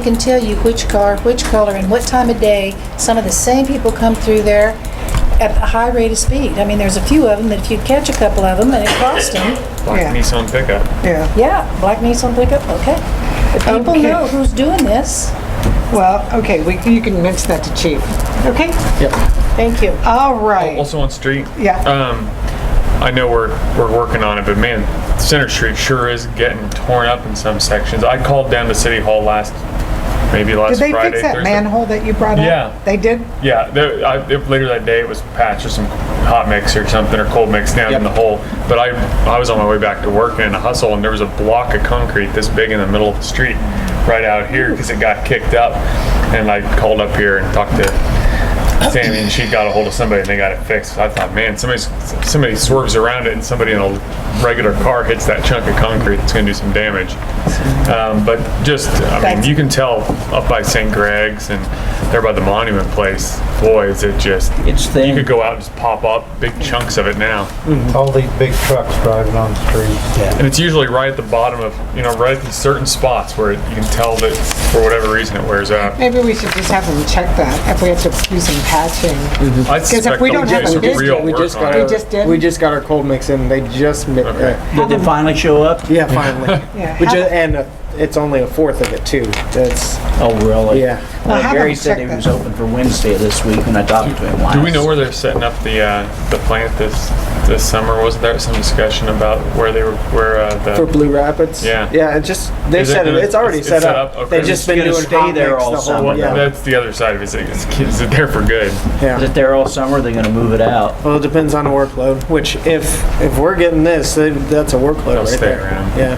can tell you which car, which color, and what time of day some of the same people come through there at a high rate of speed. I mean, there's a few of them that if you'd catch a couple of them and it cost them, black Yeah. Nissan pickup. Yeah, yeah, black Nissan pickup, okay. But people Okay. know who's doing this. well, okay, we, you can mention that to chief. Okay? Thank you. All right. Also on street. Yeah. Um, I know we're we're working on it, but man, Center Street sure is getting torn up in some sections. I called down to City Hall last, maybe last Did they Friday. fix that Thursday. manhole that you brought up? Yeah. They did? Yeah, there, I, it- later that day it was patched or some hot mix or something or cold mix down in the hole. But I, I was on my way back to work and in a hustle, and there was a block of concrete this big in the middle of the street right out here because it got kicked up. And I called up here and talked to Sammy, and she got a hold of somebody and they got it fixed. I thought, man, somebody somebody swerves around it and somebody in a regular car hits that chunk of concrete. It's going to do some damage. Um, but just, I mean, That's- you can tell up by St. Greg's and there by the monument place, boy, is it just, It's you could thin. go out and just pop up big chunks of it now. All these big trucks driving on the street. And it's usually right at the bottom of, you know, right at these certain spots where it, you can tell that for whatever reason it wears out. Maybe we should just have them check that if we have to do some patching. I if suspect we they'll don't have do a some business, real We work just on got They it. our, just did? we just got our cold mix in. They just mi- Okay. uh, Did they finally show up? yeah, finally. Yeah, We have- just, and uh, it's only a fourth of it too. That's Oh, really? yeah. Well, Uh, have Gary them said check he that. was open for Wednesday this week when I talked to him last. Do we know where they're setting up the, uh, the plant this, this summer? Was there some discussion about where they were, where, uh, For the, Blue Rapids. Yeah. Yeah. It just they Is it set it. gonna- It's already it's- set, it's set up. up? Okay. They've just It's been gonna doing stay hot there mix all the whole- summer. Yeah. that's the other side of it, is it, is it there for good? Is yeah. it there all summer? Are they gonna move it out? Well, it depends on the workload. Which if if we're getting this, then that's a workload They'll right stay there. around. Yeah.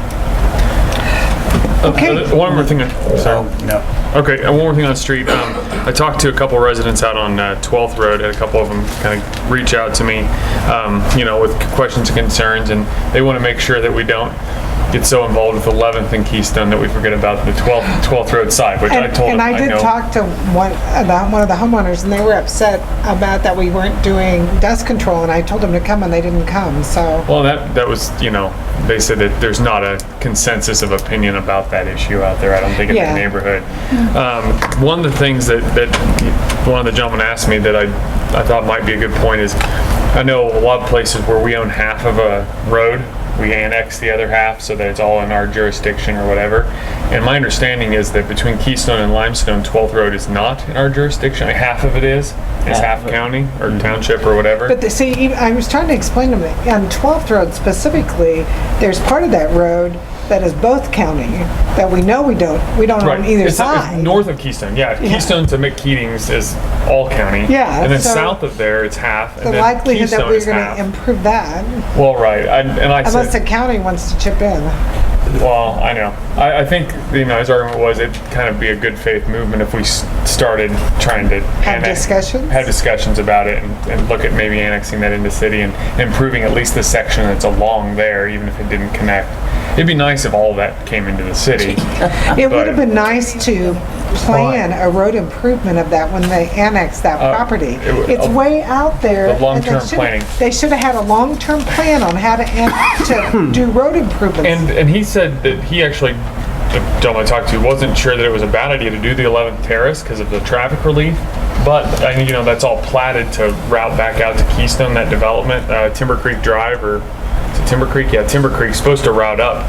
Okay. Uh, One more thing, on- sorry. no. Okay, and one more thing on the street. Um, I talked to a couple residents out on uh, 12th Road, and a couple of them kind of reach out to me, um, you know, with questions and concerns, and they want to make sure that we don't get so involved with 11th and Keystone that we forget about the 12th, 12th Road side, which I And, told them and I I did know. talk to one, about one of the homeowners, and they were upset about that we weren't doing dust control, and I told them to come, and they didn't come, so. Well, that, that was, you know, they said that there's not a consensus of opinion about that issue out there, I don't think, in Yeah. the neighborhood. Um, one of the things that, that one of the gentlemen asked me that I, I thought might be a good point is, I know a lot of places where we own half of a road, we annex the other half so that it's all in our jurisdiction or whatever. And my understanding is that between Keystone and Limestone, 12th Road is not in our jurisdiction, like half of it Mm-hmm. is, it's Half half county or township or whatever. But the, see, even- I was trying to explain to them, that on 12th Road specifically, there's part of that road that is both county, that we know we don't, we don't Right. own either it's, it's side. north of Keystone, yeah. Keystone to McKeating's is all county. Yeah, And then so- south of there, it's half. The and then likelihood Keystone that we're is gonna half. improve that, well, right. I, and I unless the said, county wants to chip in. well, I know. I, I think you know his argument was it'd kind of be a good faith movement if we s- started trying to Have annex- discussions? have discussions about it, and, and look at maybe annexing that into city and improving at least the section that's along there, even if it didn't connect. It'd be nice if all that came into the city. It would Right. have been nice to plan a road improvement of that when they annexed that Uh, property. it would- It's way out there. The and they long-term should've- planning. They should have had a long-term plan on how to, an- to do road improvements. And and he said that he actually, the gentleman I talked to, wasn't sure that it was a bad idea to do the 11th Terrace because of the traffic relief. But I mean, you know, that's all platted to route back out to Keystone. That development, uh, Timber Creek Drive, or to Timber Creek, yeah, Timber Creek's supposed to route up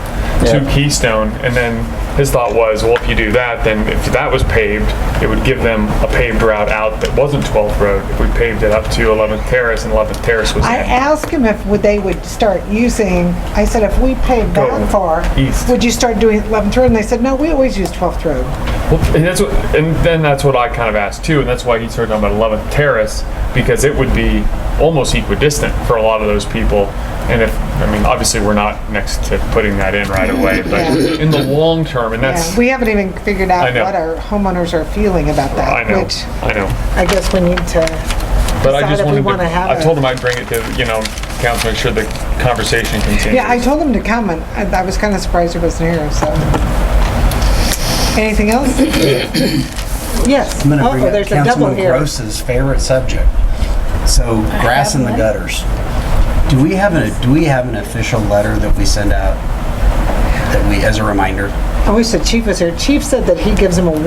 to Keystone. And then his thought was, well, if you do that, then if that was paved, it would give them a paved route out that wasn't 12th Road. If we paved it up to 11th Terrace, and 11th Terrace was I in. asked him if would- they would start using, I said, if we paved Go that far, east. would you start doing 11th Road? And they said, no, we always use 12th Road. Well, and that's what, and then that's what I kind of asked too, and that's why he started talking about 11th Terrace because it would be almost equidistant for a lot of those people. And if I mean, obviously, we're not next to putting that in right away, but Yeah. in the long term, and Yeah, that's We haven't even figured I out know. what our homeowners are feeling about I that, know, which I know. I guess we need to But I decide just if wanted we to, wanna have I a- told him I'd bring it to you know council, make sure the conversation continues. Yeah, I told him to come, and I I was kind of surprised he wasn't here, so. Anything else? Yes. I'm going to Oh, bring up there's a double Councilman here. Gross's favorite subject. So grass in the gutters. Do we have an, do we have an official letter that we send out that we, as a reminder? Oh, I wish the chief was here. Chief said that he gives him a